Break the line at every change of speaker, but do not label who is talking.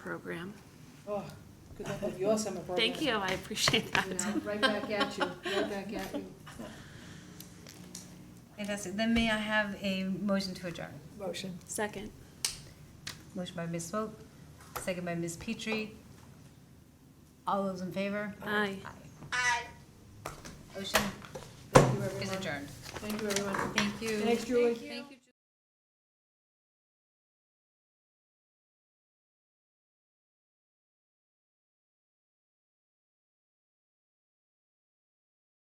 program.
Oh, good luck with your summer program.
Thank you, I appreciate
You
that.
know, right back at you, right back at you.
Fantastic. Then may I have a motion to adjourn?
Motion.
Second.
Motion by Ms. Swope, second by Ms. Petrie. All those in favor?
Aye.
Aye. Motion
Thank you,
is
everyone.
adjourned.
Thank you, everyone.
Thank you.
Thanks, Julie.
Thank you.